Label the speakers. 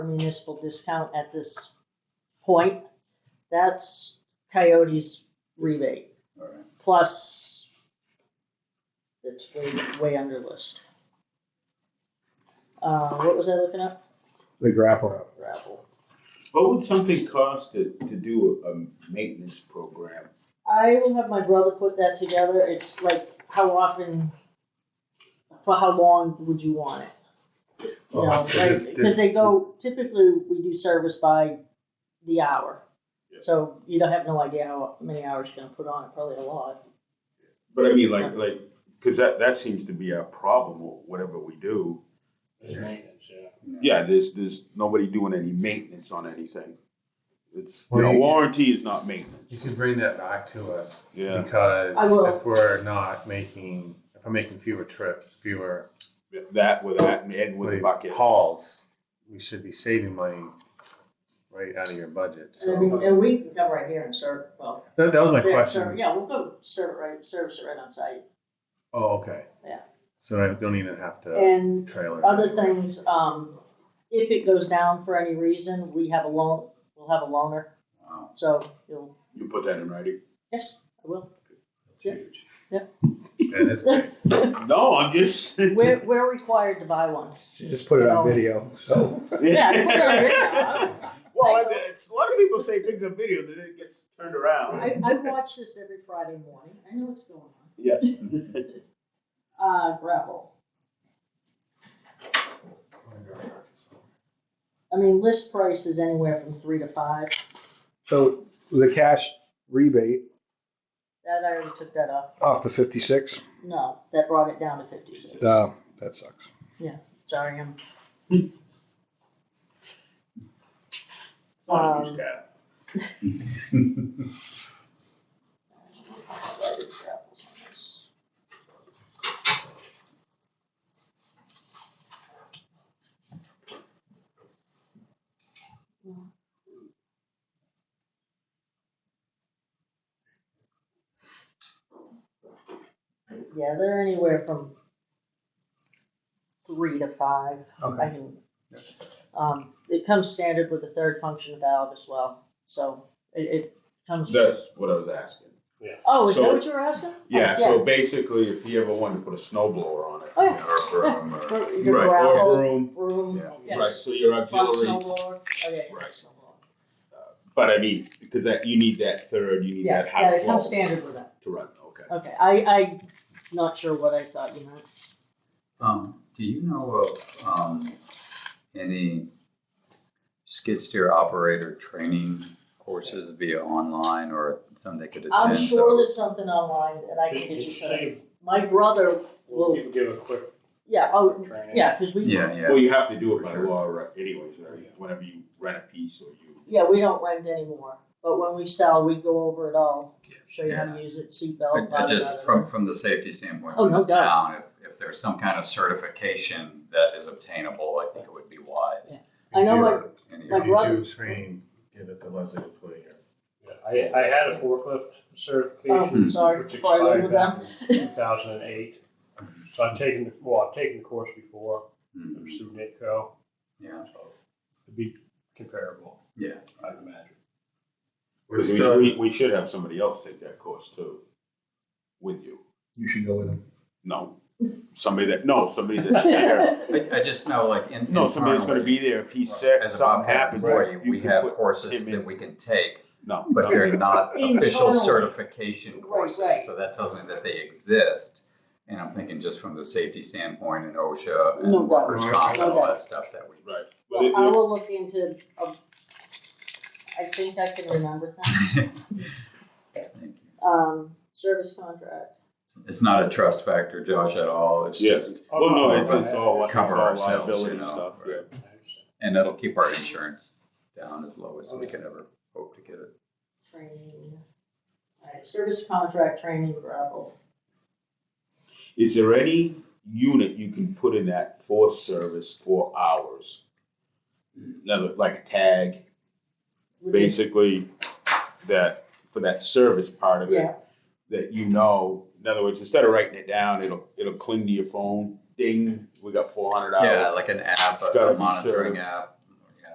Speaker 1: municipal discount at this point, that's Coyote's rebate,
Speaker 2: Alright,
Speaker 1: plus it's way, way under list. Uh, what was I looking up?
Speaker 3: The grapple.
Speaker 1: Gravel.
Speaker 2: what would something cost to, to do a, a maintenance program?
Speaker 1: I will have my brother put that together, it's like, how often, for how long would you want it? You know,
Speaker 4: So
Speaker 1: like,
Speaker 4: this- this-
Speaker 1: cause they go, typically, we do service by the hour.
Speaker 2: Yeah.
Speaker 1: So you don't have no idea how many hours you're gonna put on it, probably a lot.
Speaker 2: But I mean, like, like, cause that, that seems to be our problem, whatever we do.
Speaker 4: It's maintenance, yeah.
Speaker 2: Yeah, there's, there's nobody doing any maintenance on anything. It's, you know,
Speaker 4: Well, you-
Speaker 2: warranty is not
Speaker 4: You
Speaker 2: maintenance,
Speaker 4: could bring that back to us
Speaker 2: yeah.
Speaker 1: I
Speaker 4: because
Speaker 1: will.
Speaker 4: if we're not making, if I'm making fewer trips, fewer
Speaker 2: That with that and Ed with the
Speaker 4: Wait.
Speaker 2: bucket.
Speaker 4: hauls, we should be saving money right out of your budget.
Speaker 1: And I mean,
Speaker 4: So
Speaker 1: and we can come right here and serve, well.
Speaker 4: that, that was my
Speaker 1: there,
Speaker 4: question.
Speaker 1: serve- Yeah, we'll go serve it right, service it right on site.
Speaker 4: Oh, okay.
Speaker 1: Yeah.
Speaker 4: So I don't even have to
Speaker 1: And
Speaker 4: trailer.
Speaker 1: other things, um, if it goes down for any reason, we have a loan, we'll have a loaner,
Speaker 2: Wow.
Speaker 1: so you'll,
Speaker 2: You put that in writing?
Speaker 1: yes, I will. Yeah.
Speaker 2: Huge.
Speaker 4: And it's,
Speaker 2: No, I'm just.
Speaker 1: We're, we're required to buy one.
Speaker 3: She just put it on video, so.
Speaker 1: Yeah.
Speaker 2: Well, I- it's- a lot of people say things on video, then it gets turned around.
Speaker 1: I, I watch this every Friday morning, I know what's going on.
Speaker 2: Yeah. Um,
Speaker 1: Uh, gravel, I mean, list price is anywhere from three to five,
Speaker 3: So the cash rebate
Speaker 1: that I already took that off,
Speaker 3: off the fifty-six,
Speaker 1: no, that brought it down to fifty-six,
Speaker 3: uh, that sucks.
Speaker 1: sorry, I'm.
Speaker 2: Not a
Speaker 1: Um,
Speaker 2: huge cat.
Speaker 1: Yeah, they're anywhere from three to five. I
Speaker 3: Okay.
Speaker 1: can, um, it comes standard with the third function valve as well, so it, it comes.
Speaker 2: That's what I was asking.
Speaker 1: Oh, is that
Speaker 2: so-
Speaker 1: what you were asking?
Speaker 2: Yeah, so basically, if you ever wanted to put a snow blower on it.
Speaker 1: Oh, yeah.
Speaker 2: Or, um, or-
Speaker 1: For your
Speaker 2: Right,
Speaker 1: gravel,
Speaker 2: or broom,
Speaker 1: broom,
Speaker 2: yeah,
Speaker 1: yes.
Speaker 2: right, so your
Speaker 1: Box
Speaker 2: auxiliary,
Speaker 1: snowblower, oh, yeah,
Speaker 2: Right.
Speaker 1: snowblower.
Speaker 2: but I mean, because that, you need that third, you need
Speaker 1: Yeah,
Speaker 2: that
Speaker 1: yeah,
Speaker 2: high
Speaker 1: it
Speaker 2: flow
Speaker 1: comes
Speaker 2: to
Speaker 1: standard with that,
Speaker 2: run, okay.
Speaker 1: okay, I, I'm not sure what I thought, you know,
Speaker 5: Um, do you know of, um, any skid steer operator training courses via online or some they could attend?
Speaker 1: I'm sure
Speaker 5: so-
Speaker 1: there's something online that I can get you set up.
Speaker 4: Save.
Speaker 1: My brother
Speaker 4: We'll
Speaker 1: will,
Speaker 4: give- give a quick
Speaker 1: yeah, oh,
Speaker 4: training.
Speaker 1: yeah, cause we,
Speaker 5: Yeah, yeah.
Speaker 2: Well, you have to do it by
Speaker 5: Sure.
Speaker 2: law right, anyways, right? whenever you rent a piece or you.
Speaker 1: yeah, we don't rent anymore, but when we sell, we go over it all, show you how to use it, seatbelt,
Speaker 5: I-
Speaker 1: blah,
Speaker 5: I
Speaker 1: blah,
Speaker 5: just,
Speaker 1: blah.
Speaker 5: from, from the safety standpoint,
Speaker 1: Oh,
Speaker 5: from
Speaker 1: no
Speaker 5: the
Speaker 1: doubt.
Speaker 5: town, if, if there's some kind of certification that is obtainable, I think it would be wise.
Speaker 1: I know
Speaker 5: If
Speaker 1: my,
Speaker 5: you're- and
Speaker 1: my
Speaker 5: you're-
Speaker 4: If you
Speaker 1: brother-
Speaker 4: do train, give it to Leslie to put here.
Speaker 6: Yeah, I, I had a forklift certification.
Speaker 1: Oh, sorry,
Speaker 6: which
Speaker 1: before I leave
Speaker 6: expired
Speaker 1: them.
Speaker 6: back in Two thousand and eight. So I've taken, the- well, I've taken the course before, it
Speaker 5: Mhm.
Speaker 6: was through NITCO,
Speaker 5: Yeah,
Speaker 6: so it'd be comparable,
Speaker 5: yeah.
Speaker 6: I'd imagine.
Speaker 4: We're
Speaker 2: Because
Speaker 4: still-
Speaker 2: we, we, we should have somebody else take that course too, with you.
Speaker 3: You should go with them.
Speaker 2: No, somebody that, no, somebody that's there.
Speaker 5: I, I just know like in.
Speaker 2: No, somebody that's gonna
Speaker 5: internally,
Speaker 2: be there if he's sick,
Speaker 5: as a
Speaker 2: something
Speaker 5: Bobcat
Speaker 2: happens.
Speaker 5: employee,
Speaker 2: you
Speaker 5: We
Speaker 2: can
Speaker 5: have
Speaker 2: put
Speaker 5: courses
Speaker 2: him in.
Speaker 5: that we can take
Speaker 2: No.
Speaker 5: but they're not official
Speaker 1: Internally.
Speaker 5: certification
Speaker 1: right.
Speaker 5: courses, so that tells me that they exist. And I'm thinking just from the safety standpoint and OSHA
Speaker 1: No
Speaker 5: and workers'
Speaker 4: doubt.
Speaker 5: comp and
Speaker 1: No
Speaker 5: all
Speaker 1: doubt.
Speaker 5: that stuff that we.
Speaker 2: Right. But
Speaker 1: Well,
Speaker 2: it-
Speaker 1: I
Speaker 2: it-
Speaker 1: will look into, um, I think I can remember that,
Speaker 5: Thank you.
Speaker 1: um, service contract.
Speaker 5: It's not a trust factor, Josh, at all, it's
Speaker 2: Yeah.
Speaker 5: just,
Speaker 2: Well, no, it's, it's
Speaker 6: I-
Speaker 2: all, it's all
Speaker 5: Cover ourselves,
Speaker 2: liability
Speaker 5: you know,
Speaker 2: stuff, yeah.
Speaker 6: I understand.
Speaker 5: and that'll keep our insurance down as low as we could ever hope to get it.
Speaker 1: Training. Alright, service contract training gravel.
Speaker 2: Is there any unit you can put in that for service for hours? Another, like a tag, basically, that, for that service part of it.
Speaker 1: Yeah,
Speaker 2: that you know. In other words, instead of writing it down, it'll it'll cling to your phone. Ding, we got four hundred
Speaker 5: Yeah,
Speaker 2: hours.
Speaker 5: like an app,
Speaker 2: It's
Speaker 5: a
Speaker 2: gotta
Speaker 5: a
Speaker 2: be
Speaker 5: monitoring app,